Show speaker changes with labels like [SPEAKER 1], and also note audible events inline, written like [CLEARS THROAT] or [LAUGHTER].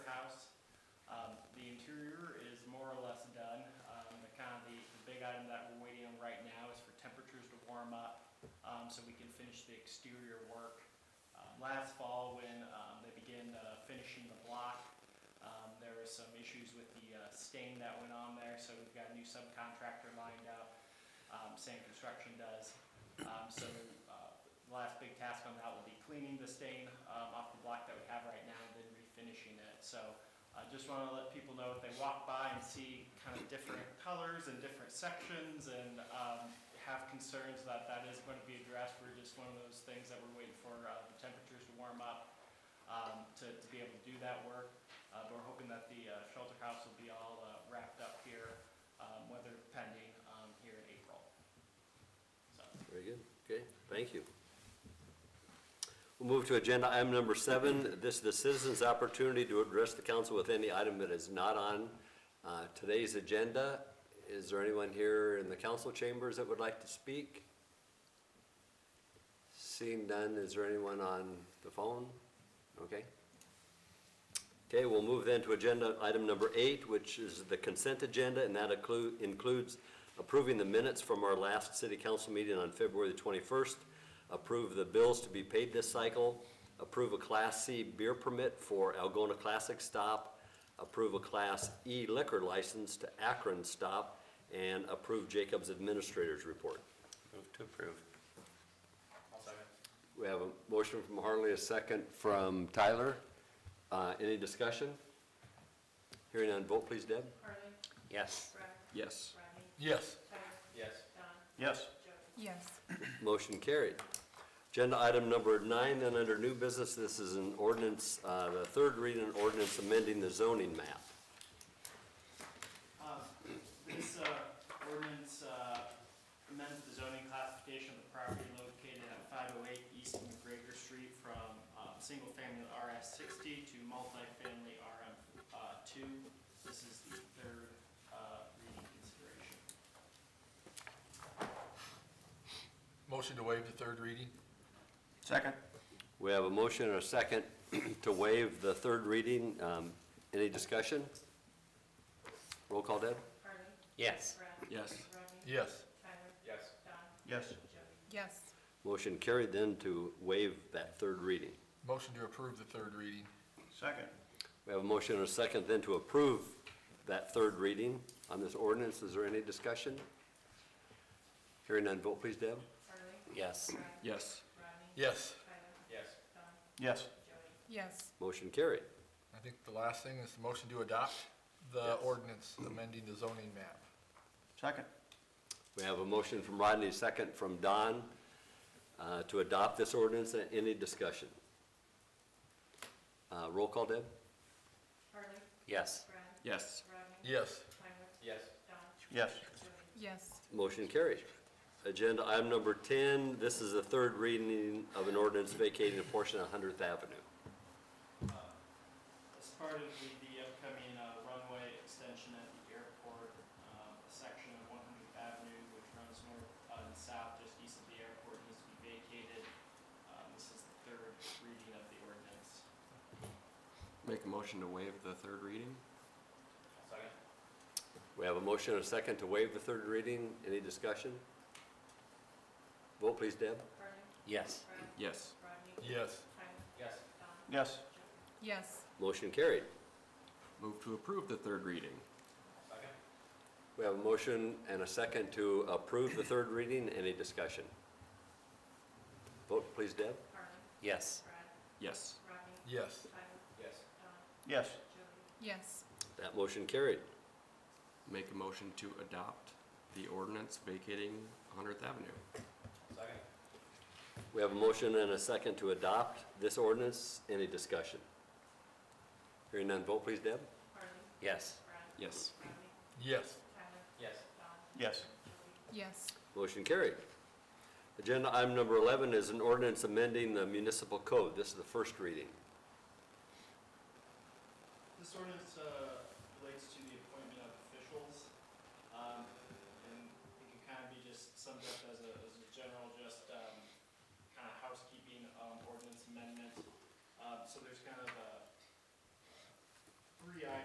[SPEAKER 1] um, warm up, um, so we can finish the exterior work. Um, Last fall, when um, they began uh, finishing the block, um, there were some issues with the uh, stain that went on there, so we've got a new subcontractor lined up, um, same construction does. Um, So uh, the last big task on that will be cleaning the stain um, off the block that we have right now and then refinishing it. So I just want to let people know if they walk by and see kind of different colors and different sections and um, have concerns that that is going to be addressed. We're just one of those things that we're waiting for uh, the temperatures to warm up um, to to be able to do that work. Uh, But we're hoping that the uh, shelter house will be all uh, wrapped up here, um, weather pending, um, here in April. So,
[SPEAKER 2] Very good, okay, thank you. We'll move to agenda item number seven. This is the citizens' opportunity to address the council with any item that is not on uh, today's agenda. Is there anyone here in the council chambers that would like to speak? Seeing none, is there anyone on the phone? Okay. Okay, we'll move then to agenda item number eight, which is the consent agenda, and that inclu- includes approving the minutes from our last city council meeting on February the 21st, approve the bills to be paid this cycle, approve a Class C beer permit for Algona Classic Stop, approve a Class E liquor license to Akron Stop, and approve Jacob's Administrator's Report.
[SPEAKER 3] Move to approve.
[SPEAKER 2] We have a motion from Harley, a second from Tyler. Uh, Any discussion? Hearing none, vote please, Deb.
[SPEAKER 4] Harley.
[SPEAKER 3] Yes.
[SPEAKER 4] Brad.
[SPEAKER 3] Yes.
[SPEAKER 4] Rodney.
[SPEAKER 3] Yes.
[SPEAKER 4] Tyler.
[SPEAKER 1] Yes.
[SPEAKER 4] Don.
[SPEAKER 3] Yes.
[SPEAKER 4] Joe.
[SPEAKER 5] Yes,
[SPEAKER 2] Motion carried. Agenda item number nine, then under new business, this is an ordinance, uh, the third reading an ordinance amending the zoning map.
[SPEAKER 1] Um, This uh, ordinance uh, amends the zoning classification of the property located at 508 East McGregor Street from uh, single-family RS60 to multifamily RM2. This is the third uh, reading consideration.
[SPEAKER 6] Motion to waive the third reading?
[SPEAKER 3] Second.
[SPEAKER 2] We have a motion and a second [CLEARS THROAT] to waive the third reading. Um, Any discussion? Roll call, Deb?
[SPEAKER 4] Harley.
[SPEAKER 3] Yes.
[SPEAKER 4] Brad.
[SPEAKER 3] Yes.
[SPEAKER 4] Rodney.
[SPEAKER 6] Yes.
[SPEAKER 4] Tyler. Yes. Don.
[SPEAKER 3] Yes.
[SPEAKER 4] Joe.
[SPEAKER 5] yes,
[SPEAKER 2] Motion carried then to waive that third reading.
[SPEAKER 6] Motion to approve the third reading?
[SPEAKER 3] Second.
[SPEAKER 2] We have a motion and a second then to approve that third reading on this ordinance. Is there any discussion? Hearing none, vote please, Deb.
[SPEAKER 4] Harley.
[SPEAKER 3] Yes.
[SPEAKER 4] Brad.
[SPEAKER 3] Yes.
[SPEAKER 4] Rodney.
[SPEAKER 6] Yes.
[SPEAKER 4] Tyler.
[SPEAKER 1] Yes.
[SPEAKER 4] Don.
[SPEAKER 3] Yes.
[SPEAKER 4] Joey.
[SPEAKER 5] yes,
[SPEAKER 2] Motion carried.
[SPEAKER 6] I think the last thing is the motion to adopt the ordinance amending the zoning map.
[SPEAKER 3] Second.
[SPEAKER 2] We have a motion from Rodney, a second from Don, uh, to adopt this ordinance. Any discussion? Uh, Roll call, Deb?
[SPEAKER 4] Harley.
[SPEAKER 2] Yes.
[SPEAKER 4] Brad.
[SPEAKER 3] Yes.
[SPEAKER 4] Rodney.
[SPEAKER 6] Yes.
[SPEAKER 4] Tyler.
[SPEAKER 1] Yes.
[SPEAKER 4] Don.
[SPEAKER 3] Yes.
[SPEAKER 4] Joey.
[SPEAKER 5] yes,
[SPEAKER 2] Motion carries. Agenda item number 10, this is the third reading of an ordinance vacating a portion of 100th Avenue.
[SPEAKER 1] Uh, As part of the, the upcoming uh, runway extension at the airport, um, a section of 100th Avenue, which runs north uh, and south just east of the airport, needs to be vacated. Um, This is the third reading of the ordinance.
[SPEAKER 7] Make a motion to waive the third reading?
[SPEAKER 1] Second.
[SPEAKER 2] We have a motion and a second to waive the third reading. Any discussion? Vote please, Deb.
[SPEAKER 4] Harley.
[SPEAKER 3] Yes.
[SPEAKER 4] Brad.
[SPEAKER 7] Yes.
[SPEAKER 4] Rodney.
[SPEAKER 6] Yes.
[SPEAKER 4] Tyler.
[SPEAKER 1] Yes.
[SPEAKER 4] Don.
[SPEAKER 3] Yes.
[SPEAKER 4] Joey.
[SPEAKER 5] yes,
[SPEAKER 2] Motion carried.
[SPEAKER 7] Move to approve the third reading?
[SPEAKER 1] Second.
[SPEAKER 2] We have a motion and a second to approve the third reading. Any discussion? Vote please, Deb.
[SPEAKER 4] Harley.
[SPEAKER 3] Yes.
[SPEAKER 4] Brad.
[SPEAKER 7] Yes.
[SPEAKER 4] Rodney.
[SPEAKER 6] Yes.
[SPEAKER 4] Tyler.
[SPEAKER 1] Yes.
[SPEAKER 4] Don.
[SPEAKER 3] Yes.
[SPEAKER 4] Joey.
[SPEAKER 5] yes,
[SPEAKER 2] That motion carried.
[SPEAKER 7] Make a motion to adopt the ordinance vacating 100th Avenue?
[SPEAKER 1] Second.
[SPEAKER 2] We have a motion and a second to adopt this ordinance. Any discussion? Hearing none, vote please, Deb.
[SPEAKER 4] Harley.
[SPEAKER 3] Yes.
[SPEAKER 4] Brad.
[SPEAKER 7] Yes.
[SPEAKER 4] Rodney.
[SPEAKER 6] Yes.
[SPEAKER 4] Tyler.
[SPEAKER 1] Yes.
[SPEAKER 4] Don.
[SPEAKER 3] Yes.
[SPEAKER 4] Joey.
[SPEAKER 5] yes,
[SPEAKER 2] Motion carried. Agenda item number 11 is an ordinance amending the municipal code. This is the first reading.
[SPEAKER 1] This ordinance uh, relates to the appointment of officials, um, and it can kind of be just summed up as a, as a general, just kind of housekeeping um, ordinance amendment. Uh, So there's kind of a